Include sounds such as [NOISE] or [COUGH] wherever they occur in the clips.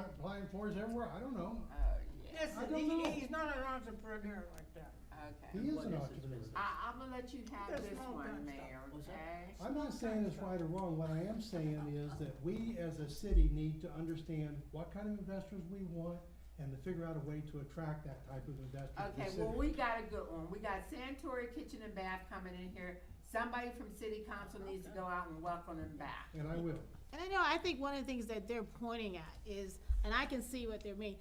applying for is everywhere, I don't know. Oh, yeah. I Listen, don't he, know. he's not an entrepreneur like that. He Okay. is What an is his entrepreneur. business? I, I'm gonna let you have That's this small one, town stuff. Mayor, What's that? okay? I'm not saying it's right or wrong, what I am saying is that we as a city need to understand what kind of investors we want and to figure out a way to attract that type of investor to the Okay, city. well, we got a good one. We got Santori Kitchen and Bath coming in here. Somebody from city council needs to go out and welcome them back. And I will. And I know, I think one of the things that they're pointing at is, and I can see what they're meaning,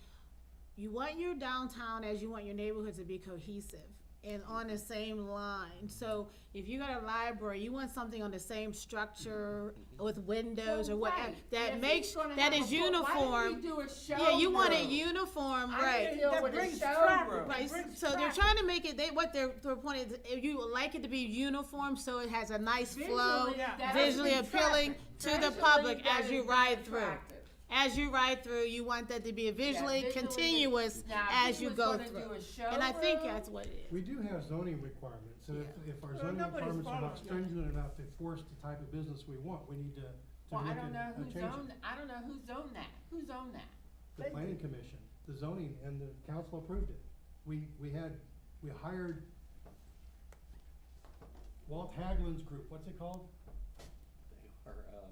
you want your downtown as you want your neighborhood to be cohesive and on the same line. So if you got a library, you want something on the same structure with windows or Well, whatever, right. If that he's makes, gonna that have is a full- Why uniform. didn't we do a show? Yeah, you want it room? uniform, I right. didn't deal That with a brings show trouble. room. Right, brings so they're traffic. trying to make it, they, what their, their point is, if you would like it to be uniform, so it has a nice flow, Visually, that visually is appealing attractive. to the Visually, public that as you is ride through. attractive. As you ride through, you want that to be a visually visually- continuous Now, if as he you was go gonna through. do a show And I think room, that's what it is. We do have zoning requirements, and if, if our Well, zoning nobody's requirements are not following that. stringent enough to force the type of business we want, we need to, to Well, look I at, don't know uh, who's change owned, it. I don't know who's owned that, who's owned that? The They- planning commission, the zoning, and the council approved it. We, we had, we hired Walt Haglund's group, what's it called? Or, um,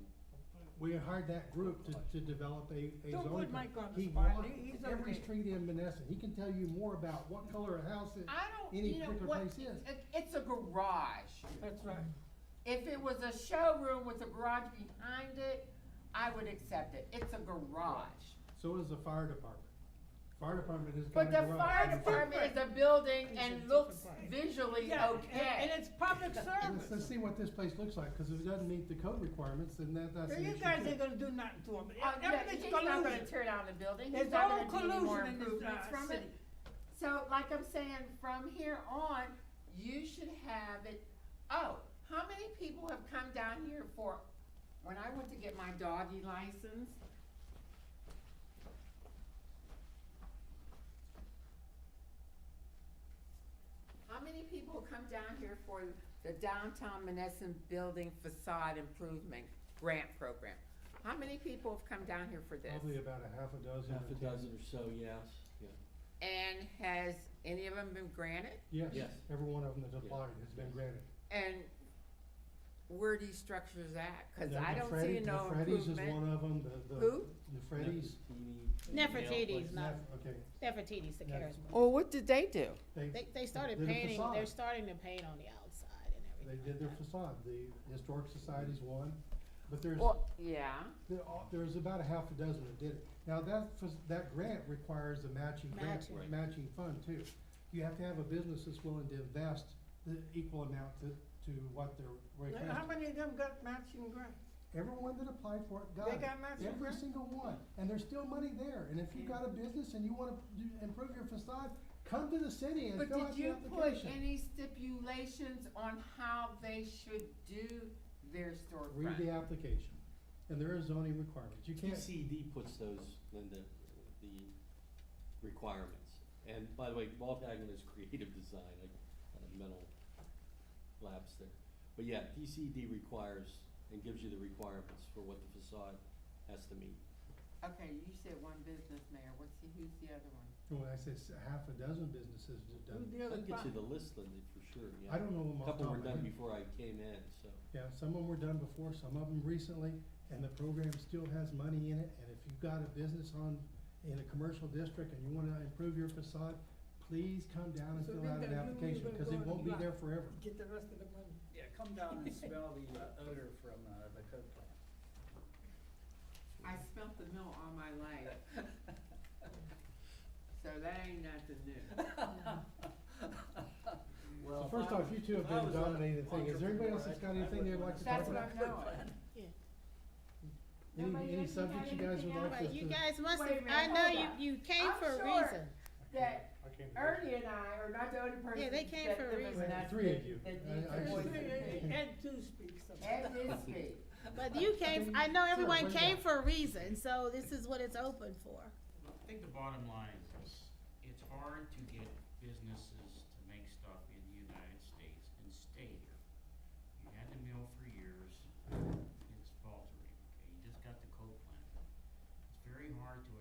We hired that group to, to develop a, a zoning. Don't put plan. Mike on the He spot. walked He- he's Every okay. street in Menneson, he can tell you more about what color a house is. I don't, Any you know, particular what, place is. it- it's a garage. That's right. If it was a showroom with a garage behind it, I would accept it, it's a garage. So is the fire department. Fire department is kind But of the garage. fire department is a building It's a and different looks part. visually Yeah, and- And okay. it's public Let's, let's service. see what this place looks like, cause if it doesn't meet the code requirements, then that, that's an You issue guys too. ain't gonna do nothing to him. Uh, yeah, Everything's He's not gonna collusion. tear down the building, he's It's all not gonna do any more collusion in this improvements uh, from it. city. So like I'm saying, from here on, you should have it, oh, how many people have come down here for, when I went to get my doggy license? How many people come down here for the downtown Menneson building facade improvement grant program? How many people have come down here for this? Probably about a half a dozen half or a ten. dozen or so, yes, yeah. And has any of them been granted? Yes, Yes. every one of them that's Yeah. applied has been granted. And where are these structures at? Cause Now, I the don't Freddy- see no improvement. The Freddy's is one of them, the, the. Who? The Freddy's. Nefertiti, Nefertiti's Nail not- Nef- Okay, Nefertiti's the Yeah. Karis. Well, what did they do? they, They, they started They're the painting, they're facade. starting to paint on the outside and they everything. did their facade, the Historic Society's one, but there's, Well, yeah, there are- there's about a half a dozen that did it. Now, that, fac- that grant requires a matching grant, Matching. Right. matching fund too. You have to have a business that's willing to invest the equal amount to, to what they're Now, How requesting. many of them got matching grants? Everyone that applied for it got They it. got matching Every grants? single one, and there's still money there, and if you've got a business and you wanna do- improve your facade, come to the city and but fill out did the you put application. any stipulations on how they should do their Read the storefront? application, and there are zoning requirements, you can't, TCD puts those, Linda, the requirements. And by the way, Walt Haglund is [LAUGHS] creative design, I had a mental lapse there. But yeah, TCD requires and gives you the requirements for what the facade has to meet. Okay, you said one business mayor, what's the, who's the other one? well, I say s- half a dozen businesses have Who done, the I other can get you five? the list, Linda, for sure, yeah. I don't know them A off the top couple were of my done head. before I came in, so. Yeah, some of them were done before, some of them recently, and the program still has money in it, and if you've got a business on, in a commercial district and you wanna improve your facade, please come down and So fill then out an that- you're application, gonna cause go it on won't be the there block. forever. Get the rest of the money. Yeah, come down and smell the uh, odor from uh, the coke plant. I smelt the mill all my life. [LAUGHS] So that ain't nothing [LAUGHS] new. Well, So if first I off, was- you two have if I been was an dominating the thing. Is there anybody else that's got entrepreneur, anything they'd I- I would like to wanna talk smell about? the coke plant. Any, Nobody any else had subjects you guys anything would like us But to? you guys must Wait a have, minute, I know hold you, up. you came I'm for a sure reason. That I can't do it. Ernie and I are not the only person Yeah, that they that came for a there was reason. an Right, us- three of that- you. I- that needs I voice should- in it. And two speaks And sometimes. this speak. But [LAUGHS] you came, I know Sure, everyone bring it came up. for a reason, so this is what it's open for. I think the bottom line is this, it's hard to get businesses to make stuff in the United States and stay here. You had the mill for years,